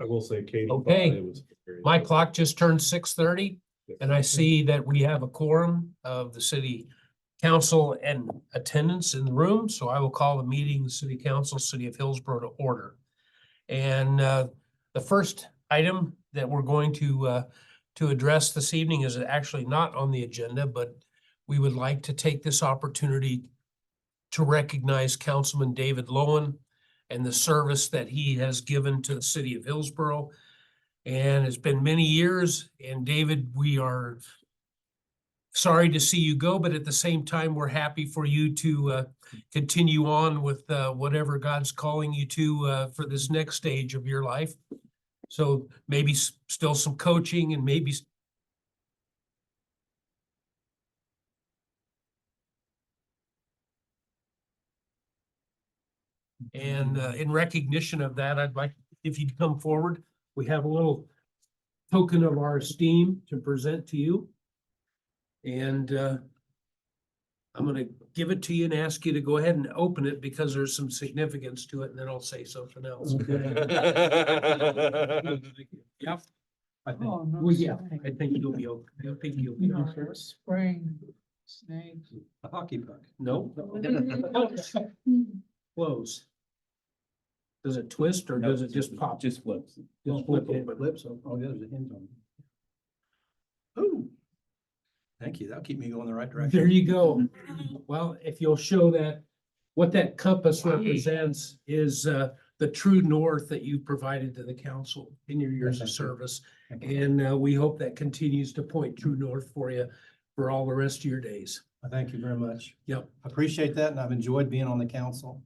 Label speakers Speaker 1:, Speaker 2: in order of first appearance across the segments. Speaker 1: I will say Katie. thought
Speaker 2: Okay.
Speaker 1: it was very
Speaker 2: My
Speaker 1: nice.
Speaker 2: clock just turned six thirty and
Speaker 3: Mm-hmm.
Speaker 2: I see that we have a quorum of the city council and attendance in the room, so I will call the meeting, the city council, city of Hillsborough to order. And uh, the first item that we're going to uh, to address this evening is actually not on the agenda, but we would like to take this opportunity to recognize Councilman David Lowen and the service that he has given to the city of Hillsborough. And it's been many years, and David, we are sorry to see you go, but at the same time, we're happy for you to uh, continue on with uh, whatever God's calling you to uh, for this next stage of your life. So maybe s- still some coaching and maybe s- and uh, in recognition of that, I'd like if you'd come forward. We have a little token of our esteem to present to you. And uh, I'm gonna give it to you and ask you to go ahead and open it because there's some significance to it, and then I'll say something else. Yep. I think,
Speaker 4: Oh, no,
Speaker 2: well, yeah,
Speaker 4: sorry.
Speaker 2: I think you'll be okay. I think you'll be.
Speaker 5: Mm-hmm.
Speaker 4: You are a Spring snake.
Speaker 2: A hockey puck. No, close. Does it twist or does it just pop?
Speaker 5: Just flips.
Speaker 2: Just flip it.
Speaker 5: Flips, oh, oh, yeah, there's a hinge on it. Ooh. Thank you, that'll keep me going the right direction.
Speaker 2: There you go. Well, if you'll show that, what that compass represents is uh, the true north that you provided to the council in your years of service.
Speaker 5: Thank you.
Speaker 2: And uh, we hope that continues to point true north for you for all the rest of your days.
Speaker 5: Well, Thank you very much.
Speaker 2: Yep.
Speaker 5: I Appreciate that, and I've enjoyed being on the council,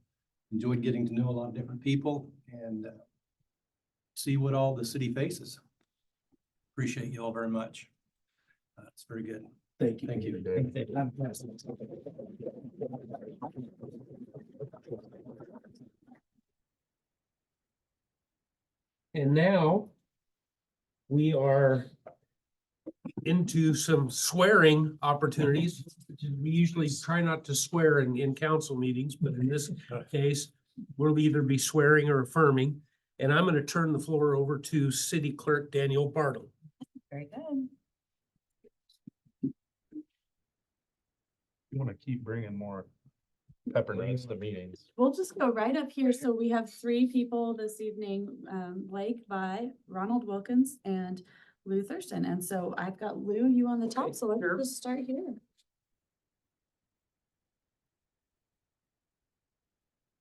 Speaker 5: enjoyed getting to know a lot of different people and uh, see what all the city faces. Appreciate you all very much. Uh, It's very good.
Speaker 2: Thank you.
Speaker 5: Thank you.
Speaker 2: And now we are into some swearing opportunities. We usually try not to swear in, in council meetings, but in this case, we'll either be swearing or affirming. And I'm going to turn the floor over to City Clerk Daniel Bartle.
Speaker 4: Very good.
Speaker 3: You wanna keep bringing more peppermints to meetings.
Speaker 6: We'll just go right up here. So we have three people this evening, um, Blake, Vi, Ronald Wilkins, and Lou Thurston. And so I've got Lou, you on the top, so let's just start here.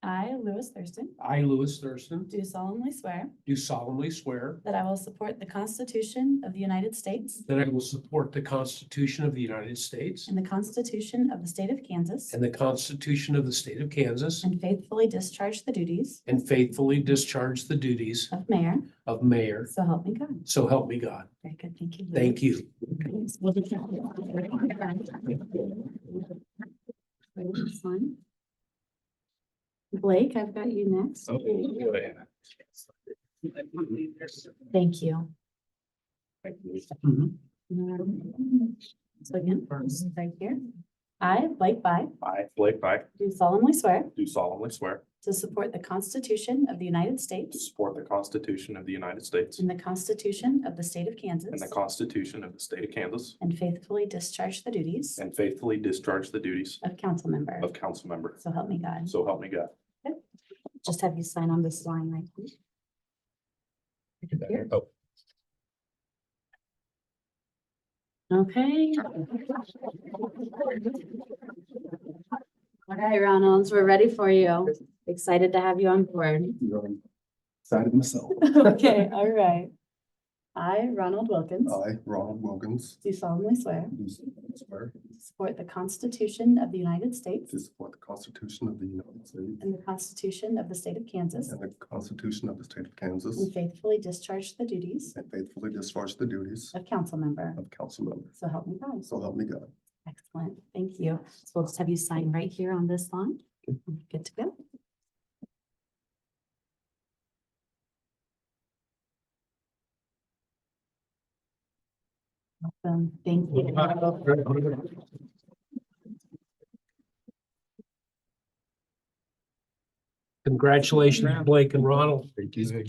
Speaker 6: I, Louis Thurston,
Speaker 2: I, Louis Thurston,
Speaker 6: do solemnly swear
Speaker 2: do solemnly swear
Speaker 6: that I will support the Constitution of the United States
Speaker 2: that I will support the Constitution of the United States
Speaker 6: and the Constitution of the State of Kansas,
Speaker 2: and the Constitution of the State of Kansas
Speaker 6: and faithfully discharge the duties
Speaker 2: and faithfully discharge the duties
Speaker 6: of mayor,
Speaker 2: of mayor.
Speaker 6: so help me God.
Speaker 2: So help me God.
Speaker 6: Very good, thank you. Lou.
Speaker 2: Thank you.
Speaker 6: Blake, I've got you next.
Speaker 3: Oh.
Speaker 6: Thank you. So again, right here. I, Blake By,
Speaker 3: I, Blake Pike,
Speaker 6: do solemnly swear
Speaker 3: do solemnly swear
Speaker 6: to support the Constitution of the United
Speaker 3: to
Speaker 6: States
Speaker 3: support the Constitution of the United States
Speaker 6: and the Constitution of the State of
Speaker 3: and
Speaker 6: Kansas,
Speaker 3: the Constitution of the State of Kansas,
Speaker 6: and faithfully discharge the duties
Speaker 3: and faithfully discharge the duties
Speaker 6: of council member.
Speaker 3: of council member.
Speaker 6: So help me God.
Speaker 3: So help me God.
Speaker 6: Just have you sign on this line right here. Here.
Speaker 3: Oh.
Speaker 6: Okay. All right, Ronalds, we're ready for you. Excited to have you on board.
Speaker 7: Excited myself.
Speaker 6: Okay, all right. I, Ronald Wilkins,
Speaker 7: I, Ronald Wilkins,
Speaker 6: do solemnly swear
Speaker 7: do solemnly swear
Speaker 6: to support the Constitution of the United States
Speaker 7: to support the Constitution of the United States
Speaker 6: and the Constitution of the State of Kansas,
Speaker 7: and the Constitution of the State of Kansas,
Speaker 6: and faithfully discharge the duties
Speaker 7: and faithfully discharge the duties
Speaker 6: of council member.
Speaker 7: of council member.
Speaker 6: So help me God.
Speaker 7: So help me God.
Speaker 6: Excellent, thank you. So we'll just have you sign right here on this line. Good to go. Awesome, thank you.
Speaker 2: Congratulations, Blake and Ronald.
Speaker 7: Thank you.